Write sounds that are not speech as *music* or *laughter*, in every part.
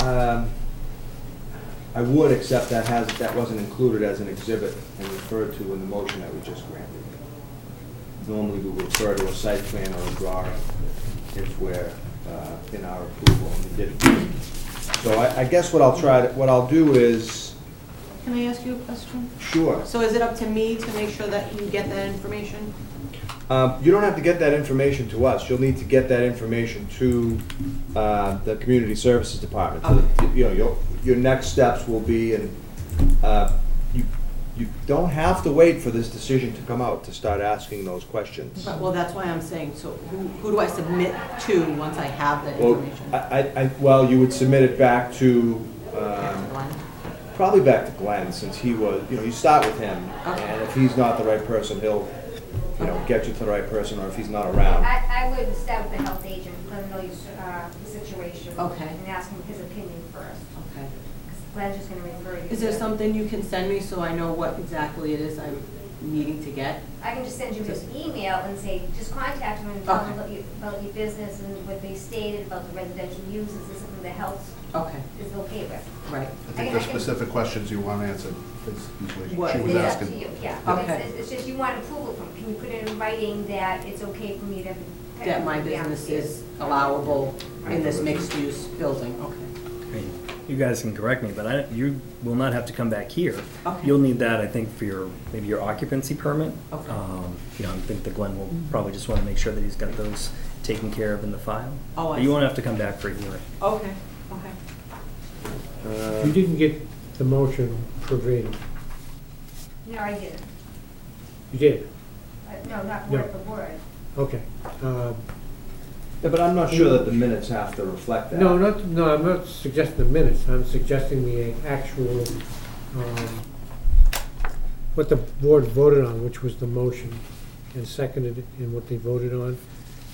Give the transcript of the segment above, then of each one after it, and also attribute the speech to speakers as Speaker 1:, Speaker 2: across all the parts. Speaker 1: Um, I would, except that has, that wasn't included as an exhibit and referred to in the motion that we just granted. Normally, we would refer to a site plan or a drawing if we're uh, in our approval, and we didn't. So I, I guess what I'll try, to- what I'll do is,
Speaker 2: Can I ask you a question?
Speaker 1: sure,
Speaker 2: So is it up to me to make sure that you get that information?
Speaker 1: Um, You don't have to get that information to us. You'll need to get that information to uh, the Community Services Department. So, You know, your, your next steps will be, and uh, you, you don't have to wait for this decision to come out to start asking those questions.
Speaker 2: Well, that's why I'm saying, so who, who do I submit to once I have that
Speaker 1: Well, I,
Speaker 2: information?
Speaker 1: I, I- well, you would submit it back to, um,
Speaker 2: Glenn?
Speaker 1: probably back to Glenn, since he was, you know, you start with him.
Speaker 2: Okay.
Speaker 1: And if he's not the right person, he'll, you know, get you to the right person, or if he's not around.
Speaker 3: I, I would start with the health agent, let him know your, uh, the situation.
Speaker 2: Okay.
Speaker 3: And ask him his opinion first,
Speaker 2: Okay.
Speaker 3: because Glenn's just gonna refer you.
Speaker 2: Is there
Speaker 3: to-
Speaker 2: something you can send me so I know what exactly it is I'm needing to get?
Speaker 3: I can just send you his email and say, just contact him and tell
Speaker 2: Okay.
Speaker 3: him about your, about your business and what they stated about the residential use, is this something the health
Speaker 2: Okay,
Speaker 3: is okay with?
Speaker 2: right.
Speaker 4: I think there's specific questions you want answered, is usually she
Speaker 2: What-
Speaker 4: was
Speaker 3: It's up to
Speaker 4: asking.
Speaker 3: you, yeah.
Speaker 2: Okay.
Speaker 3: It's- It's, it's just you want approval from, can you put it in writing that it's okay for me to?
Speaker 2: That my business is allowable in this mixed-use building, okay.
Speaker 5: I mean, You guys can correct me, but I, you will not have to come back here.
Speaker 2: Okay.
Speaker 5: You'll need that, I think, for your, maybe your occupancy permit.
Speaker 2: Okay.
Speaker 5: Um, You know, I think that Glenn will probably just want to make sure that he's got those taken care of in the file.
Speaker 2: Oh, I
Speaker 5: But You
Speaker 2: see.
Speaker 5: won't have to come back for a hearing.
Speaker 2: Okay, okay.
Speaker 1: Uh,
Speaker 6: You didn't get the motion verbatim.
Speaker 3: No, I didn't.
Speaker 6: You did?
Speaker 3: Uh, No, not word
Speaker 6: No.
Speaker 3: for word.
Speaker 6: Okay. Um,
Speaker 1: Yeah, but I'm not sure that the minutes have to reflect that.
Speaker 6: No, not, no, I'm not suggesting the minutes, I'm suggesting the actual, um, what the board voted on, which was the motion, and seconded, and what they voted on.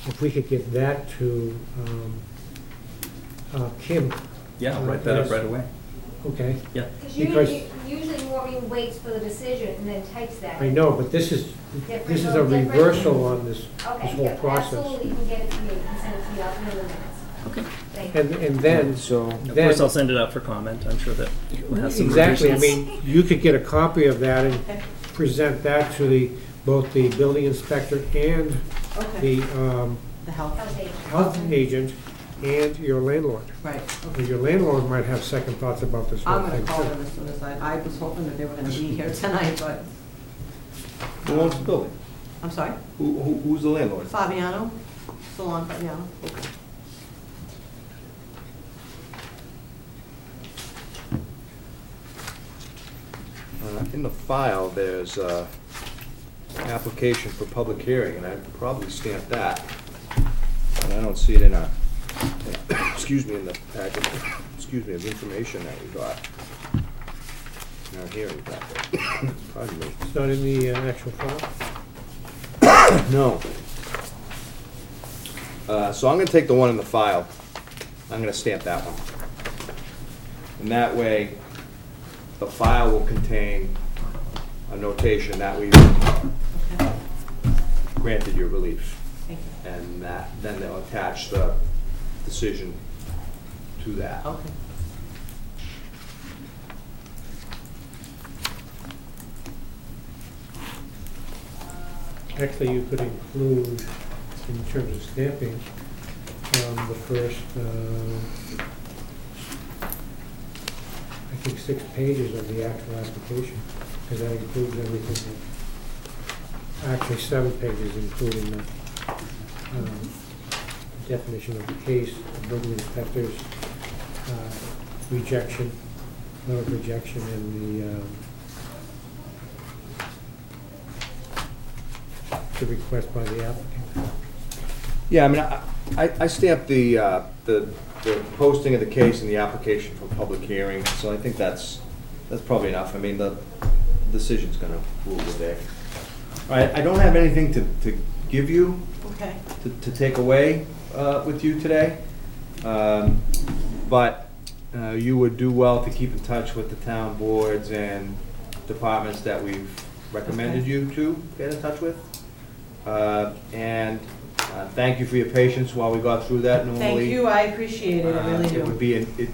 Speaker 6: If we could get that to um, uh, Kim,
Speaker 5: Yeah, I'll
Speaker 6: Uh,
Speaker 5: write that up
Speaker 6: yes.
Speaker 5: right away.
Speaker 6: okay?
Speaker 5: Yeah.
Speaker 3: Because
Speaker 6: Because-
Speaker 3: usually, usually Maureen waits for the decision and then types that.
Speaker 6: I know, but this is, this is a
Speaker 3: Different, different.
Speaker 6: reversal on this, this
Speaker 3: Okay,
Speaker 6: whole
Speaker 3: yeah,
Speaker 6: process.
Speaker 3: absolutely, you can get it to me, you can send it to me, I'll put it in the minutes.
Speaker 5: Okay.
Speaker 3: Thank you.
Speaker 6: And, and then,
Speaker 1: So,
Speaker 5: Of
Speaker 6: Then-
Speaker 5: course, I'll send it out for comment. I'm sure that you'll have some
Speaker 6: Exactly, I
Speaker 5: revisions.
Speaker 6: mean, you could get a copy of that and
Speaker 2: Okay.
Speaker 6: present that to the, both the building inspector and
Speaker 2: Okay.
Speaker 6: the um,
Speaker 2: The health,
Speaker 3: Health agent.
Speaker 6: health agent and your landlord.
Speaker 2: right,
Speaker 6: And
Speaker 2: okay.
Speaker 6: Your landlord might have second thoughts about this
Speaker 2: I'm
Speaker 6: whole
Speaker 2: gonna
Speaker 6: thing.
Speaker 2: call
Speaker 6: too.
Speaker 2: them as soon as I, I was hoping that they were gonna be here tonight, but,
Speaker 1: who owns the building?
Speaker 2: I'm sorry?
Speaker 1: Who, who, who's the landlord?
Speaker 2: Fabiano, Salon Fabiano.
Speaker 1: Uh, In the file, there's uh application for public hearing, and I probably stamped that. And I don't see it in our, excuse me, in the packet, excuse me, of information that we got. In our hearing packet. *coughs* Pardon me.
Speaker 6: It's not in the uh, actual file?
Speaker 1: No. Uh, So I'm gonna take the one in the file. I'm gonna stamp that one. And that way, the file will contain a notation that we
Speaker 2: Okay,
Speaker 1: granted your relief.
Speaker 2: thank you.
Speaker 1: And that, then they'll attach the decision to that.
Speaker 2: Okay.
Speaker 6: Actually, you could include, in terms of stamping, um, the first, uh, I think, six pages of the actual application, because that includes everything. that- Actually, seven pages, including the um, definition of the case, the building inspector's uh, rejection, note of rejection, and the um, the request by the applicant.
Speaker 1: Yeah, I mean, I- I, I stamped the, uh, the, the posting of the case and the application for public hearing, so I think that's, that's probably enough. I mean, the decision's gonna rule the day. All right, I don't have anything to, to give you,
Speaker 2: Okay.
Speaker 1: to, to take away uh, with you today. Um, But uh, you would do well to keep in touch with the town boards and departments that we've recommended
Speaker 2: Okay.
Speaker 1: you to get in touch with. Uh, And uh, thank you for your patience while we got through that normally.
Speaker 2: Thank you, I appreciate it, I
Speaker 1: uh,
Speaker 2: really do.
Speaker 1: It would be, an- it